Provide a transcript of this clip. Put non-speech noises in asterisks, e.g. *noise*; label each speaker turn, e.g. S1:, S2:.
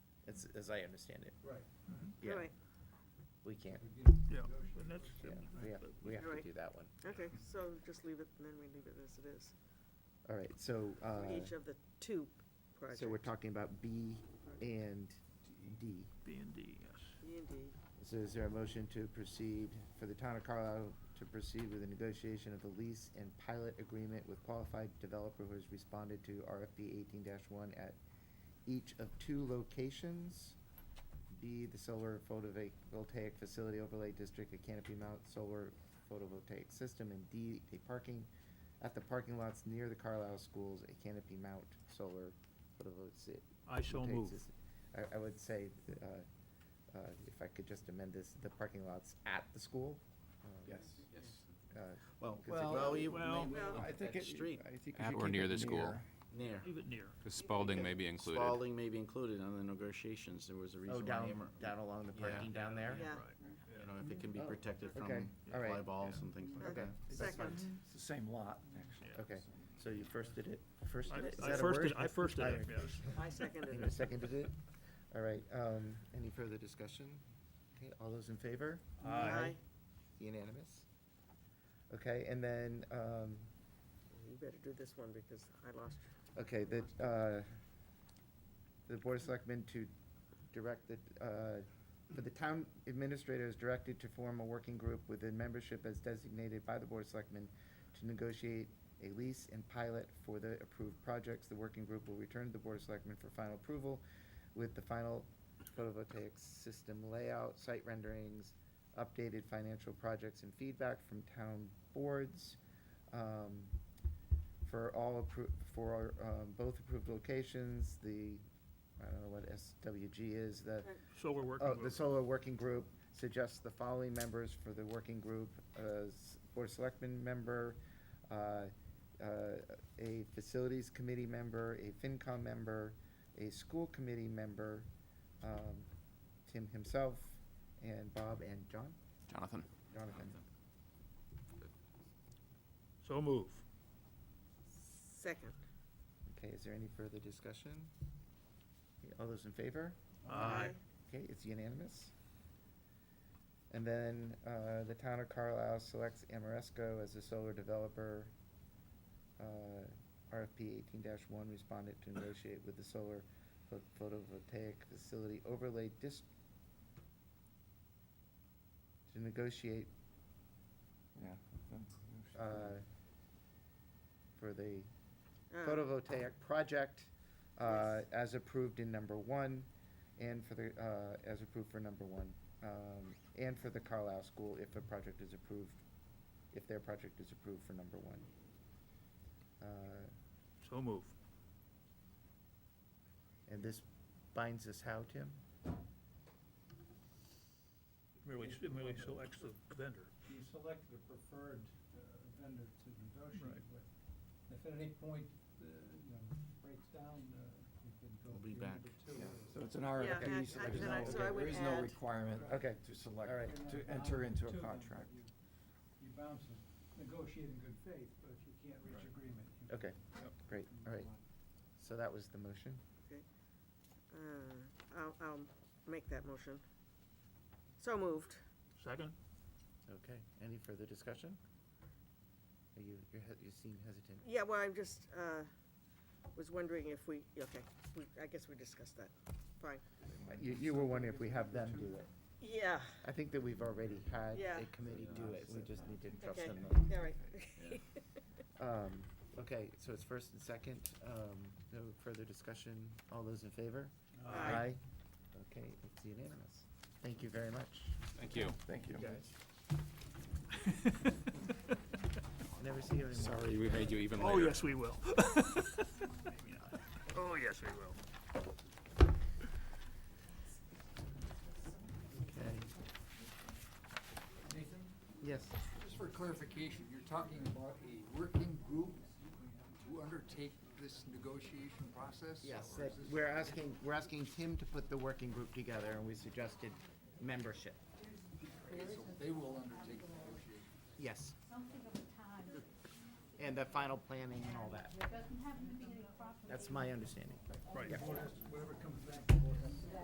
S1: as, as I understand it.
S2: Right.
S1: Yeah,
S3: All right,
S1: we can't,
S4: Yeah, and that's,
S1: yeah, we have, we have to
S3: Right.
S1: do that one.
S3: okay, so just leave it, and then we leave it as it is,
S1: All right, so,
S3: for each
S1: uh,
S3: of the two projects.
S1: so we're talking about B and D.
S4: B and D, yes.
S3: B E and D.
S1: So is there a motion to proceed, for the town of Carlisle to proceed with the negotiation of the lease and pilot agreement with qualified developer who has responded to RFP eighteen one at each of two locations? B, the solar photovoltaic facility overlay district, a canopy mount solar photovoltaic system, and D, a parking, at the parking lots near the Carlisle schools, a canopy mount solar photovoltaic.
S4: I so
S1: photovoltaic
S4: move.
S1: system. I, I would say, uh, uh, if I could just amend this, the parking lots at the school. um,
S2: Yes. Yes.
S1: uh,
S5: Well,
S1: because it- Well,
S5: you-
S4: well,
S5: may-
S3: Well-
S2: I think
S5: that
S2: it,
S5: street,
S2: I think you should
S6: At or
S2: keep
S6: near
S2: it
S6: the school.
S5: near.
S4: Leave it near.
S6: Because Spalding may be included.
S5: Spalding may be included on the negotiations, there was a reason
S1: Oh,
S5: why
S1: down,
S5: Amherst-
S1: down along the parking down there?
S3: Yeah.
S4: Right.
S5: You know, if it can be
S1: Oh,
S5: protected
S1: okay,
S5: from
S1: all right.
S5: fly balls and things like
S1: Okay.
S5: that.
S3: Second,
S2: It's the same lot, actually.
S4: Yeah.
S1: Okay, so you firsted it, firsted
S4: I-
S1: it? Is
S4: I
S1: that a
S4: firsted-
S1: word?
S4: I firsted it,
S1: Alright.
S4: yes.
S3: I
S1: And
S3: seconded
S1: you
S3: it.
S1: seconded it? All right, um, any further discussion? Okay, all those in favor?
S3: Aye.
S1: Unanimous? Okay, and then, um,
S3: You better do this one, because I lost.
S1: okay, the, uh, the Board of Selectmen to direct the, uh, for the town administrator is directed to form a working group within membership as designated by the Board of Selectmen to negotiate a lease and pilot for the approved projects. The working group will return to the Board of Selectmen for final approval with the final photovoltaic system layout, site renderings, updated financial projects and feedback from town boards. Um, For all, appro- for um, both approved locations, the, I don't know what SWG is, the
S4: So we're working
S1: Oh,
S4: with.
S1: the solar working group suggests the following members for the working group, as Board of Selectmen member, uh, uh, a Facilities Committee member, a FinCom member, a School Committee member, um, Tim himself, and Bob and John,
S6: Jonathan?
S1: Jonathan.
S4: So move.
S3: Second.
S1: Okay, is there any further discussion? Okay, All those in favor?
S4: Aye.
S1: Okay, it's unanimous. And then, uh, the town of Carlisle selects Amoresco as the solar developer. Uh, RFP eighteen one responded to negotiate with the solar pho- photovoltaic facility overlay dis- to negotiate,
S2: Yeah.
S1: uh, for the
S3: Uh,
S1: photovoltaic project, uh, as approved in number one, and for the, uh, as approved for number one, um, and for the Carlisle School if a project is approved, if their project is approved for number one. Uh,
S4: So move.
S1: And this binds us how, Tim?
S4: Merely, s- merely selects the vendor.
S7: you selected a preferred uh, vendor to negotiate
S4: Right.
S7: with. If at any point, uh, you know, breaks down, uh, you can go.
S5: We'll be
S7: through
S5: back.
S7: number two.
S2: Yeah, So it's an
S3: Yeah, I-
S2: RFP, so
S3: I-
S2: there's
S3: then I-
S2: no,
S3: so I
S2: there
S3: would
S2: is no
S3: add-
S2: requirement
S1: Okay.
S2: to
S1: All right.
S2: select,
S7: You're not
S2: to enter
S7: bound
S2: into
S7: to
S2: a
S7: them, but
S2: contract.
S7: you- You bounce and negotiate in good faith, but if you can't reach
S2: Right.
S7: agreement. you
S1: Okay,
S2: Yep.
S1: great,
S7: can
S1: all
S7: move
S1: right.
S7: on.
S1: So that was the motion.
S3: uh, I'll, I'll make that motion. So moved.
S4: *laughs* Second?
S1: Okay, any further discussion? Are you, you're, he- you seem hesitant.
S3: Yeah, well, I'm just, uh, was wondering if we, okay, we, I guess we discussed that. Fine.
S1: You, you were wondering if we have them do it.
S3: Yeah,
S1: I think that we've already had
S3: Yeah.
S1: a committee do it, we just need to trust
S3: okay,
S1: them.
S3: all right.
S1: Um, okay, so it's first and second, um, no further discussion, all those in favor?
S3: *laughs* Aye.
S1: Okay, it's unanimous, thank you very much,
S6: Thank you.
S2: Thank you.
S1: never see you anymore.
S6: Sorry, we made you even later.
S4: Oh, yes, we will. *laughs* Oh, yes, we will.
S1: Okay,
S7: Nathan,
S1: yes,
S7: just for clarification, you're talking about a working group to undertake this negotiation process?
S1: yes,
S7: or
S1: that,
S7: is this-
S1: we're asking, we're asking Tim to put the working group together, and we suggested membership,
S7: Okay, so They will undertake the negotiation.
S1: yes,
S8: something of a time.
S1: and the final planning and all that,
S8: There doesn't happen to be any property.
S1: that's my understanding.
S4: Right.
S7: Whatever comes back, the board has to-